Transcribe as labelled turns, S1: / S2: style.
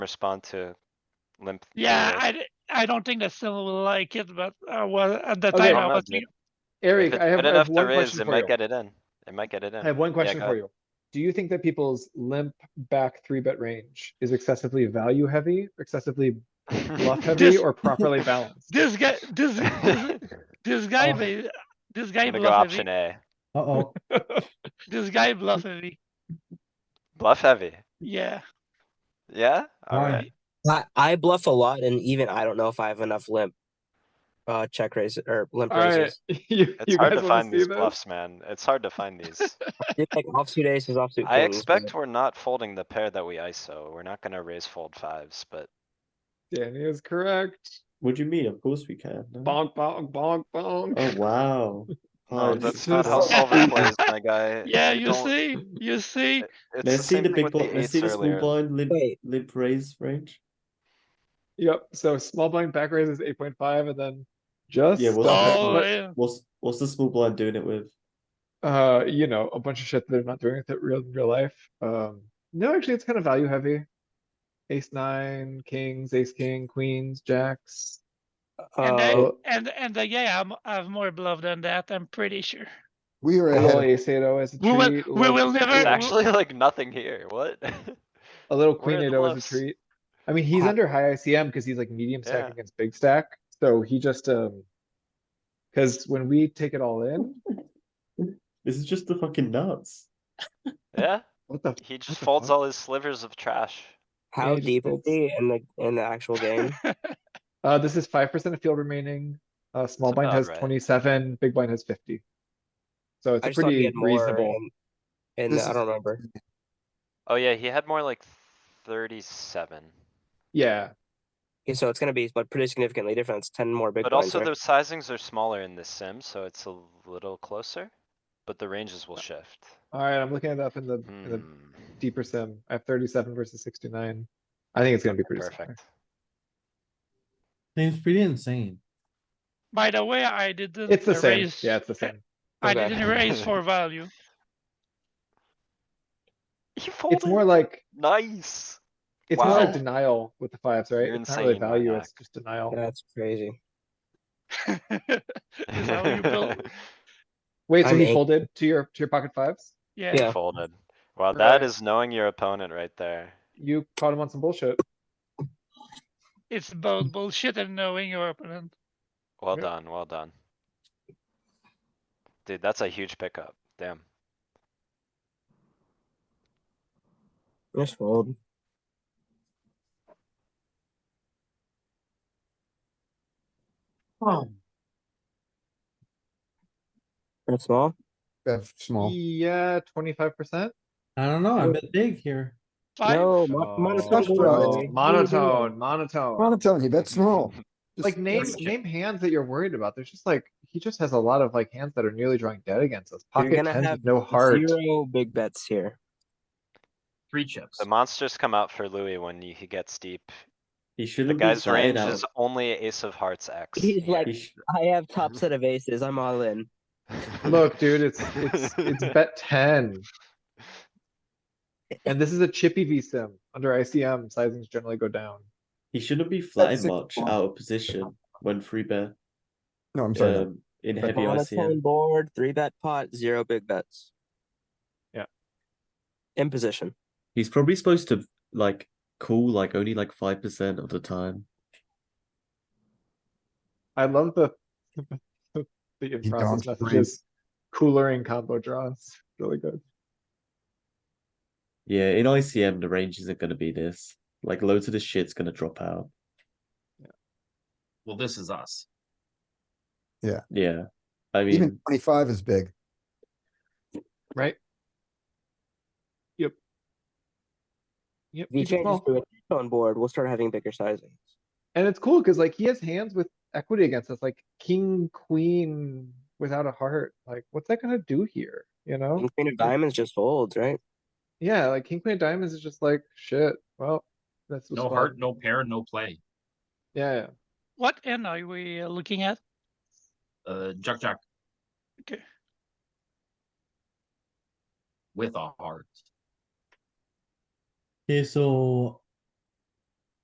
S1: respond to limp.
S2: Yeah,
S1: theory.
S2: I, d- I don't think that Sylvan will like it, but uh, well, at the
S3: Okay.
S2: time
S1: Well,
S2: I
S1: no,
S2: was
S1: dude.
S2: thinking,
S1: If
S3: Eric, I
S1: it's
S3: have,
S1: good
S3: I have
S1: enough
S3: one
S1: to raise,
S3: question
S1: it
S3: for you.
S1: might get it in. It might get it in.
S3: I have one question
S1: go
S3: for
S1: ahead.
S3: you. Do you think that people's limp back three bet range is excessively value heavy, excessively bluff heavy,
S2: This-
S3: or properly balanced?
S2: this guy, this, this- this guy,
S4: Oh.
S2: may- this
S1: I'm
S2: guy
S1: gonna go option
S2: bluffing,
S1: A.
S4: Uh-oh,
S2: this guy bluffing,
S1: Bluff heavy.
S2: yeah.
S1: Yeah?
S4: Why?
S1: Alright.
S5: I, I bluff a lot, and even I don't know if I have enough limp. Uh, check raise or limp
S3: Alright,
S5: raises.
S3: you,
S1: It's
S3: you
S1: hard
S3: guys
S1: to
S3: wanna
S1: find
S3: see
S1: these
S3: this?
S1: bluffs, man. It's hard to find these.
S5: It's like offsuit aces, offsuit.
S1: I
S5: kings, but-
S1: expect we're not folding the pair that we ISO. We're not gonna raise fold fives, but
S3: Danny is correct.
S6: What do you mean? Of course we can. no?
S3: Bonk, bonk, bonk, bonk.
S6: Oh wow.
S1: no,
S6: Oh,
S3: it's
S1: that's
S6: this-
S1: not how
S3: just-
S1: solver plays, my guy.
S2: Yeah, you
S1: don't-
S2: see, you see,
S1: It's the
S6: Let's see
S1: same
S6: the
S1: thing
S6: big
S1: with the
S6: blind. Let's
S1: eights
S6: see the small
S1: earlier.
S6: blind limp
S5: Wait.
S6: limp raise range.
S3: Yep, so small blind back raise is eight point five and then just,
S6: Yeah, we'll-
S3: stop
S2: oh,
S3: it.
S2: yeah.
S6: What's what's the small blind doing it with?
S3: uh, you know, a bunch of shit they're not doing with it real, real life. Um, no, actually, it's kind of value heavy. Ace nine, kings, ace king, queens, jacks.
S2: and
S5: Uh,
S2: then, and, and the guy, I'm, I have more bluff than that, I'm pretty sure.
S4: we are ahead.
S3: Little
S4: of-
S3: ace eight oh as a
S2: We will,
S3: treat.
S2: we
S3: little-
S2: will never.
S1: There's
S2: we-
S1: actually like nothing here. What?
S3: A little
S1: Where are
S3: queen
S1: the
S3: eight oh as
S1: bluffs?
S3: a treat. I mean, he's
S5: Ha-
S3: under high ICM because he's like medium
S1: Yeah.
S3: stack against big stack, so he just, um. Cause when we take it all in,
S6: This is just the fucking nuts.
S1: Yeah,
S3: what the,
S1: he
S3: What
S1: just
S3: the
S1: folds
S3: fuck?
S1: all his slivers of trash.
S5: how
S3: just
S5: deep will
S3: it's-
S5: be in the in the actual game?
S3: uh, this is five percent of field remaining. Uh, small
S1: It's
S3: blind
S1: about
S3: has
S1: right.
S3: twenty-seven, big blind has fifty. So it's
S5: I
S3: a
S5: just thought he
S3: pretty
S5: had more
S3: reasonable.
S5: And
S4: This
S5: I
S4: is-
S5: don't remember.
S1: Oh yeah, he had more like thirty-seven,
S3: Yeah,
S5: Okay, so it's gonna be but pretty significantly different. It's ten more big
S1: but
S5: blinds.
S1: also
S5: right?
S1: those sizings are smaller in this sim, so it's a little closer. But the ranges will shift.
S3: alright, I'm looking it up in the, in the
S1: Hmm,
S3: deeper sim. I have thirty-seven versus sixty-nine. I think it's gonna be pretty similar.
S1: Perfect.
S4: Seems pretty insane.
S2: By the way, I didn't.
S3: It's the same,
S2: raise-
S3: yeah, it's the same.
S2: I
S5: Okay.
S2: didn't raise for value.
S1: He
S3: It's more
S1: folded,
S3: like,
S1: nice.
S3: it's more like
S1: Wow.
S3: denial with the fives, right?
S1: You're
S3: It's not really
S1: insane,
S3: value,
S1: Mark.
S3: it's just denial.
S5: That's crazy.
S2: Is that what you built?
S3: Wait, so
S5: I'm
S3: he
S5: eight.
S3: folded to your, to your pocket fives?
S2: Yeah.
S1: He
S5: Yeah.
S1: Folded. Wow, that
S3: Right.
S1: is knowing your opponent right there.
S3: You caught him on some bullshit.
S2: It's both bullshit and knowing your opponent.
S1: Well
S3: Yep.
S1: done, well done. Dude, that's a huge pickup, damn.
S5: Just fold. That's small.
S4: Bet small.
S3: Yeah, twenty-five percent?
S4: I don't know, I bet big here.
S2: Five.
S5: No,
S1: Oh.
S5: mo- monotone.
S4: That's what I
S5: gold.
S4: was-
S3: Oh. Monotone, monotone.
S4: I'm telling you, bet small. Just-
S3: Like name, name hands that you're worried about. There's just like, he just has a lot of like hands that are nearly drawing dead against us.
S5: You're
S3: Pocket
S5: gonna
S3: tens
S5: have
S3: with no heart.
S5: Zero big bets here.
S7: Three chips.
S1: The monsters come out for Louis when he he gets deep.
S6: He
S1: The
S6: shouldn't be
S1: guy's
S6: inside
S1: range
S6: out.
S1: is only ace of hearts X.
S5: He's
S1: here.
S5: like-
S6: He sh-
S5: I have
S3: Mm-hmm.
S5: top set of aces. I'm all in.
S3: Look, dude, it's, it's, it's bet ten. And this is a chippy V sim. Under ICM, sizings generally go down.
S6: he shouldn't be flying
S4: six
S6: much
S4: more.
S6: out of position when free bet
S4: No, I'm sorry.
S6: um, in
S4: But
S6: heavy
S5: Monotone
S6: ICM.
S5: board, three bet pot, zero big bets.
S3: Yeah.
S5: In position.
S6: He's probably supposed to like call like only like five percent of the time.
S3: I love the the in-process
S4: dodged brains.
S3: messages. Coolering combo draws, really good.
S6: Yeah, in ICM the range isn't gonna be this. Like loads of this shit's gonna drop out.
S7: Well, this is us.
S6: Yeah. I mean
S4: Even twenty-five is big.
S3: Yep.
S5: If you
S3: you can
S5: change this
S3: call.
S5: to a monotone board, we'll start having bigger sizings.
S3: And it's cool because like he has hands with equity against us, like king, queen without a heart. Like, what's that gonna do here? You
S7: Mm-hmm.
S3: know?
S5: And Queen of diamonds just folds, right?
S3: Yeah, like king, queen of diamonds is just like shit. Well, that's what's
S7: No
S3: fun.
S7: heart, no pair, no play.
S3: Yeah, yeah.
S2: What end are we uh, looking at?
S7: Uh, Jack Jack.
S2: Okay.
S7: With a heart.
S8: Okay, so